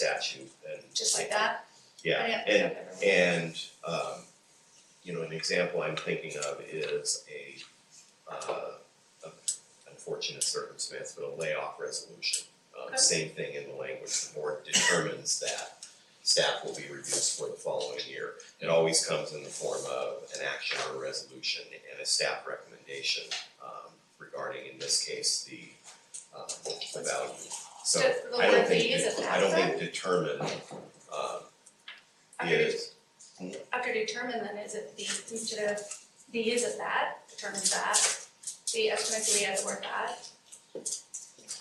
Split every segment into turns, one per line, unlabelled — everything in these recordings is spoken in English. statute and.
just like that?
Yeah,
I
and
didn't- I've never-
And, um, you know, an example I'm thinking of is a, uh, a unfortunate circumstance, but a layoff resolution. Um,
Okay.
same thing in the language, the board determines that staff will be reduced for the following year. It always comes in the form of an action or a resolution and a staff recommendation, um, regarding, in this case, the, um, the value. So,
Just the
I don't
word they
think,
use is
de- I don't think
after?
determine, um,
After
is.
de- After determine then, is it the, instead of, the is it that, determines that, the estimates, we add the word that?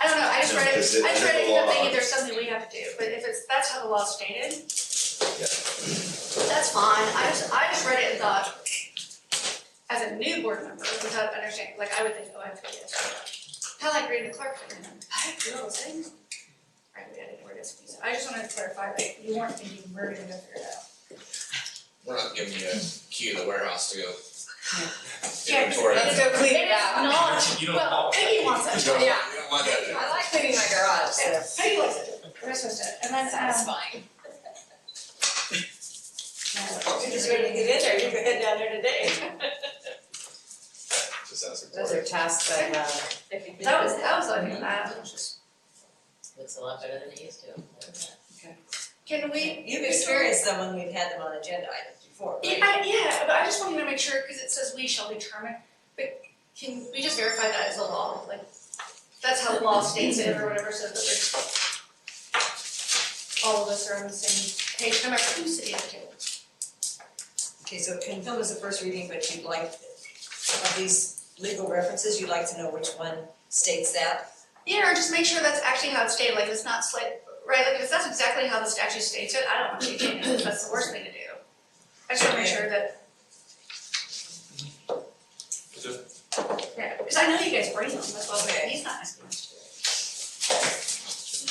I don't know, I just
No,
read it, I
because it-
just
under
read it,
the
and I'm
law-
thinking there's something we have to do, but if it's, that's how the law's stated,
Yeah,
that's fine, I just, I just read it and thought, as a new board member, without understanding, like, I would think, oh, I have to do this. Kind of like reading the clerk, and I'm like, I do all those things. I would edit word is, so I just wanted to clarify that you weren't thinking we're gonna go figure it out.
We're not giving you a key to the warehouse to go.
Yeah,
Inventory.
Let's go clean it out.
Not,
You don't
well,
follow that.
Peggy wants
You
it.
don't, you
Yeah.
don't want that.
I like cleaning my garage, so.
Peggy likes it. We're supposed to, and then, um,
Satisfying.
no,
You're just ready to get in there, you can head down there today.
just as a
Those are tasks that, uh,
That was, that was like that.
looks a lot better than it used to.
Can we?
You've experienced them when we've had them on agenda items before,
Yeah,
right?
I- yeah, but I just wanted to make sure, cause it says we shall determine, but can we just verify that as a law, like, that's how the law states it or whatever, so that there's all of us are on the same page, no matter who's sitting at the table.
Okay, so and film is the first reading, but you'd like, of these legal references, you'd like to know which one states that?
Yeah, or just make sure that's actually how it's stated, like it's not slight, right, like if that's exactly how the statute states it, I don't want you to change it, that's the worst thing to do. I just wanna make sure that, yeah, because I know you guys bring them, that's why I was like, he's not asking us to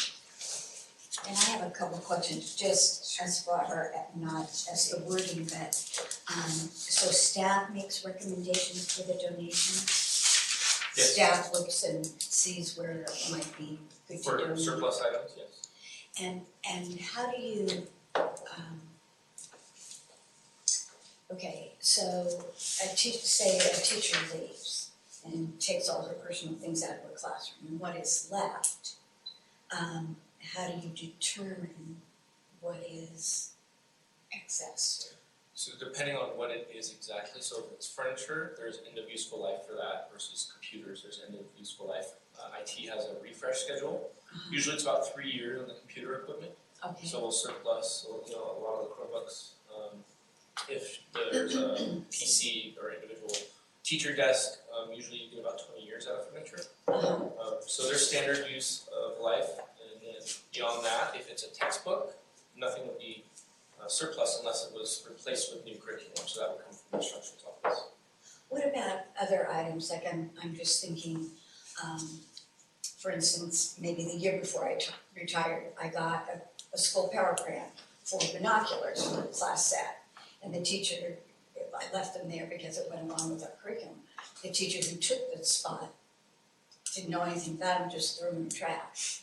do it.
And I have a couple of questions, just as far as not as the wording, but um so staff makes recommendations for the donation?
Yes.
Staff looks and sees where it might be good to
For
donate.
surplus items, yes.
And and how do you um okay, so a teacher, say a teacher leaves and takes all her personal things out of her classroom and what is left, um how do you determine what is excess?
So depending on what it is exactly, so if it's furniture, there's end of useful life for that versus computers, there's end of useful life. Uh, IT has a refresh schedule, usually it's about three years on the computer equipment,
Okay,
so we'll surplus, so, you know, a lot of the Chromebooks. Um, if there's a PC or individual teacher desk, um, usually you get about twenty years out of furniture.
uh-huh,
Um, so their standard use of life, and then beyond that, if it's a textbook, nothing would be uh, surplus unless it was replaced with new curriculum, so that would come from the instruction's office.
what about other items, like I'm I'm just thinking, um for instance, maybe the year before I t- retired, I got a a school power grant for binoculars for the class set. And the teacher, I left them there because it went along with our curriculum, the teacher who took the spot didn't know anything about them, just threw them in the trash.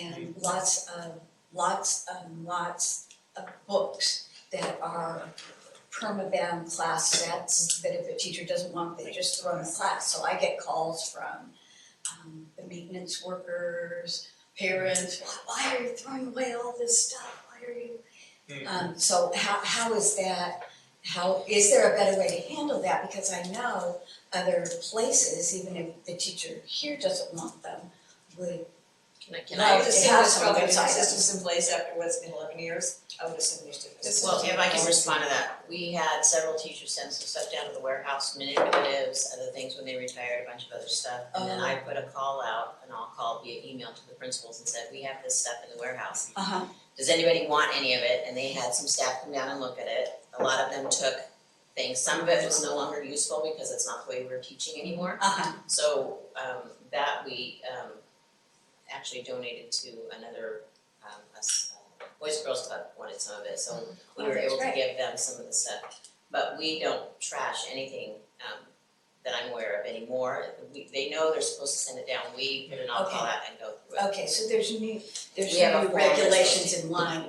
And lots of, lots and lots of books that are permabound class sets that if a teacher doesn't want, they just throw in the class. So I get calls from um the maintenance workers, parents, why are you throwing away all this stuff? Why are you?
Hmm.
Um so how how is that, how, is there a better way to handle that? Because I know other places, even if the teacher here doesn't want them, would,
Can I, can
No,
I,
it's-
assume
have
there's
some
probably
of those
different
items.
systems in place after what's been eleven years, I would assume there's different systems.
well, if I can respond to that, we had several teachers send some stuff down to the warehouse, manipulatives, other things when they retired, a bunch of other stuff. And then I put a call out, and I'll call via email to the principals and said, we have this stuff in the warehouse.
uh-huh,
Does anybody want any of it? And they had some staff come down and look at it. A lot of them took things, some of it was no longer useful because it's not the way we're teaching anymore.
uh-huh,
So um that we um actually donated to another um us uh, Boys and Girls Club wanted some of it, so we
Oh,
were
that's
able to
great.
give them some of the stuff. But we don't trash anything um that I'm aware of anymore. We, they know they're supposed to send it down, we put an on-call out and go through it.
Okay, so there's new, there's
We have a
new
form.
regulations in line